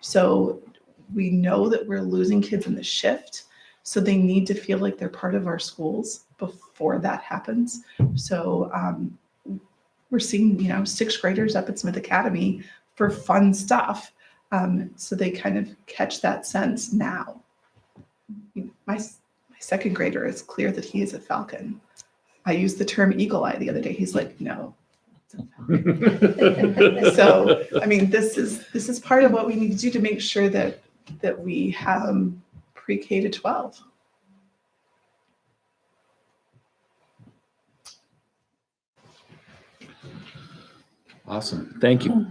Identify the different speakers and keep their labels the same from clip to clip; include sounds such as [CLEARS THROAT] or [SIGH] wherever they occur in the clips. Speaker 1: So we know that we're losing kids in the shift. So they need to feel like they're part of our schools before that happens. So um, we're seeing, you know, sixth graders up at Smith Academy for fun stuff. Um, so they kind of catch that sense now. My, my second grader is clear that he is a falcon. I used the term eagle eye the other day. He's like, no. it's a falcon." [LAUGHS] So, I mean, this is, this is part of what we need to do to make sure that, that we have um, pre-K to 12.
Speaker 2: Awesome. Thank you.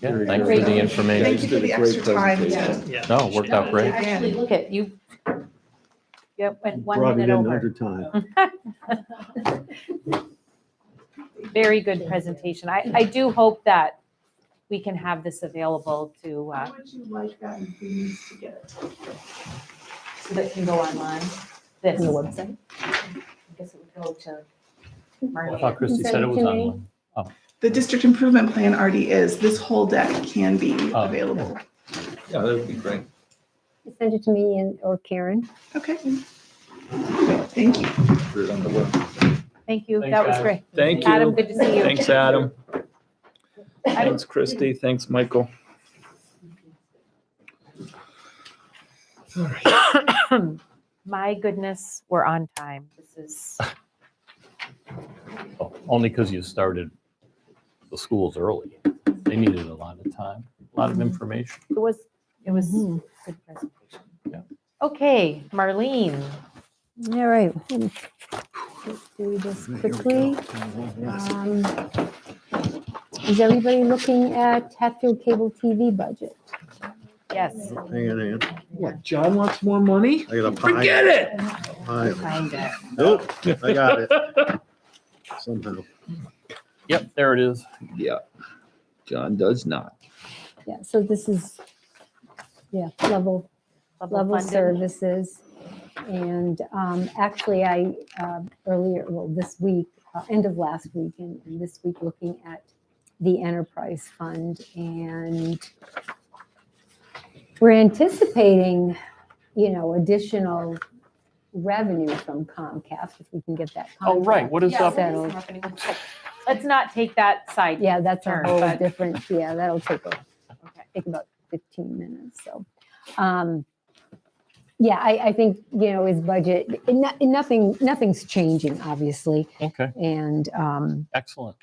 Speaker 3: Yeah,
Speaker 2: Very
Speaker 3: thank you
Speaker 1: good.
Speaker 3: for the
Speaker 1: Thank
Speaker 3: information.
Speaker 1: you for the extra time.
Speaker 4: Yeah.
Speaker 1: to-
Speaker 3: No, it worked out great.
Speaker 5: Actually, look at you. Yep, went one
Speaker 6: Brought it
Speaker 5: minute
Speaker 6: in
Speaker 5: over.
Speaker 6: another time.
Speaker 5: Very good presentation. I, I do hope that we can have this available to, uh,
Speaker 1: How would you like that if we used to get it?
Speaker 4: So that can go online.
Speaker 5: this.
Speaker 4: website?
Speaker 5: I guess it would go to
Speaker 3: I
Speaker 5: Marty.
Speaker 3: thought Christie said it was
Speaker 4: Consent
Speaker 3: on
Speaker 4: committee.
Speaker 3: one.
Speaker 1: The district improvement plan already is. This whole deck can be
Speaker 3: Oh.
Speaker 1: available.
Speaker 2: Yeah, that would be great.
Speaker 4: Send it to me and, or Karen.
Speaker 1: Okay. Thank you.
Speaker 2: Put it on the web.
Speaker 5: Thank you.
Speaker 3: Thanks,
Speaker 5: That was
Speaker 3: guys.
Speaker 5: great.
Speaker 2: Thank
Speaker 5: Adam,
Speaker 2: you.
Speaker 5: good to see you.
Speaker 2: Thanks, Adam.
Speaker 5: I don't-
Speaker 2: Thanks, Christy. Thanks, Michael. All right.
Speaker 5: [CLEARS THROAT] My goodness, we're on time. This is,
Speaker 3: Oh, [LAUGHS] Only because you started the schools early. They needed a lot of time, a lot of information.
Speaker 5: it was, it was good presentation.
Speaker 3: Yeah.
Speaker 5: Okay, Marlene,
Speaker 4: All right. hmm. Let's Do this quickly. Um, Is everybody looking at Hatfield Cable TV budget?
Speaker 5: yes.
Speaker 6: Hang on, hang on.
Speaker 2: What, John wants more money?
Speaker 6: I got a pie.
Speaker 2: Forget it.
Speaker 6: Pie.
Speaker 5: Find it.
Speaker 6: Nope, I got it. Somehow.
Speaker 3: Yep, there it is.
Speaker 2: Yeah. John does not.
Speaker 4: Yeah, so this is, yeah, level level
Speaker 5: funded.
Speaker 4: services. And um, actually, I, uh, earlier, well, this week, uh, end of last week and and this week, looking at the enterprise fund and we're anticipating, you know, additional revenue from Comcast if we can get that.
Speaker 3: Oh, right.
Speaker 4: contract
Speaker 3: What is up?
Speaker 5: Yeah, what is
Speaker 4: settled.
Speaker 5: happening? Let's not take that side.
Speaker 4: Yeah, that's a
Speaker 5: Sure,
Speaker 4: whole
Speaker 5: but-
Speaker 4: different, yeah, that'll take, a-
Speaker 5: Okay.
Speaker 4: take about 15 minutes, so. um, Yeah, I, I think, you know, his budget, and no- and nothing, nothing's changing, obviously.
Speaker 3: Okay,
Speaker 4: And um,
Speaker 3: excellent.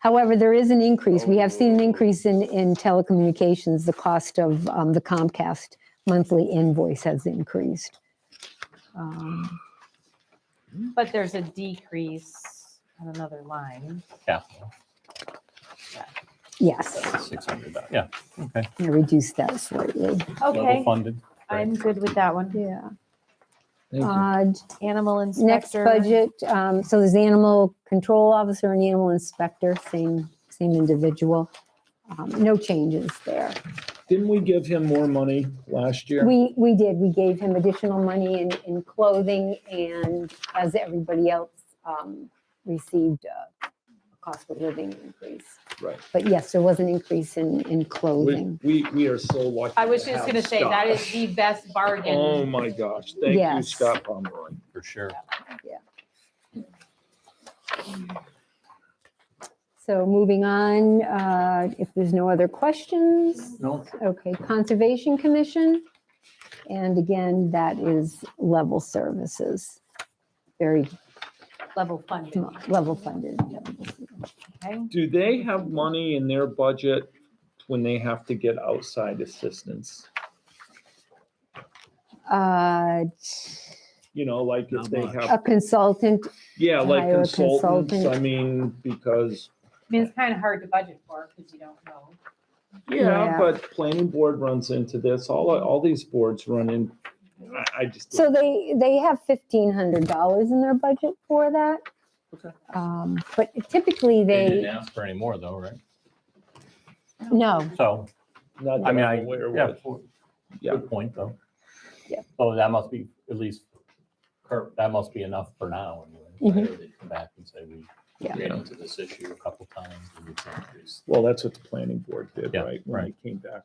Speaker 4: however, there is an increase. We have seen an increase in, in telecommunications. The cost of um, the Comcast monthly invoice has increased. Um,
Speaker 5: But there's a decrease on another line.
Speaker 3: Capital,
Speaker 4: Yes,
Speaker 3: six hundred, yeah, okay.
Speaker 4: I reduced that slightly,
Speaker 3: Level
Speaker 5: Okay,
Speaker 3: funded.
Speaker 5: I'm good with that one.
Speaker 4: yeah.
Speaker 2: Thank you.
Speaker 4: Uh,
Speaker 5: Animal
Speaker 4: Next
Speaker 5: inspector.
Speaker 4: budget, um, so there's the animal control officer and the animal inspector, same, same individual. Um, No changes there.
Speaker 2: Didn't we give him more money last year?
Speaker 4: We, we did, we gave him additional money in, in clothing and as everybody else um, received uh, a cost of living increase.
Speaker 2: Right.
Speaker 4: But yes, there was an increase in, in
Speaker 2: We,
Speaker 4: clothing.
Speaker 2: we we are so lucky.
Speaker 5: I was
Speaker 2: to
Speaker 5: just
Speaker 2: have
Speaker 5: gonna say, that is the
Speaker 2: Scott.
Speaker 5: best
Speaker 2: Oh,
Speaker 5: bargain.
Speaker 2: my gosh. Thank you,
Speaker 4: Yes.
Speaker 2: Scott Pomeroy.
Speaker 3: For sure.
Speaker 4: So moving on, uh, if there's no other questions.
Speaker 3: No.
Speaker 4: Okay, Conservation Commission. And again, that is level services. Very
Speaker 5: Level funded.
Speaker 4: sm- level funded.
Speaker 5: okay?
Speaker 2: Do they have money in their budget when they have to get outside assistance?
Speaker 4: Uh,
Speaker 2: You know, like if
Speaker 6: Not
Speaker 2: they
Speaker 6: much.
Speaker 4: A
Speaker 2: have,
Speaker 4: consultant,
Speaker 2: yeah, like
Speaker 4: Hire a
Speaker 2: consultants, I
Speaker 4: consultant.
Speaker 2: mean, because,
Speaker 5: I mean, it's kind of hard to budget for because you don't know.
Speaker 2: yeah,
Speaker 4: Yeah.
Speaker 2: but planning board runs into this, all, all these boards run in. I, I just,
Speaker 4: so they, they have fifteen hundred dollars in their budget for that.
Speaker 2: Okay.
Speaker 4: Um, But typically
Speaker 3: They didn't
Speaker 4: they,
Speaker 3: ask for any more though, right?
Speaker 4: no,
Speaker 3: So,
Speaker 2: not that
Speaker 3: I mean,
Speaker 2: I'm
Speaker 3: I,
Speaker 2: aware of
Speaker 3: yeah,
Speaker 2: it.
Speaker 3: for-
Speaker 2: Yeah.
Speaker 3: good point though.
Speaker 4: Yeah.
Speaker 3: So that must be at least, cur- that must be enough for now. anyway. Later they Come back and say, we
Speaker 4: Yeah.
Speaker 3: ran into this issue a couple times. and we can't do this."
Speaker 2: Well, that's what the planning board did,
Speaker 3: Yeah,
Speaker 2: right? When they
Speaker 3: right.
Speaker 2: Came back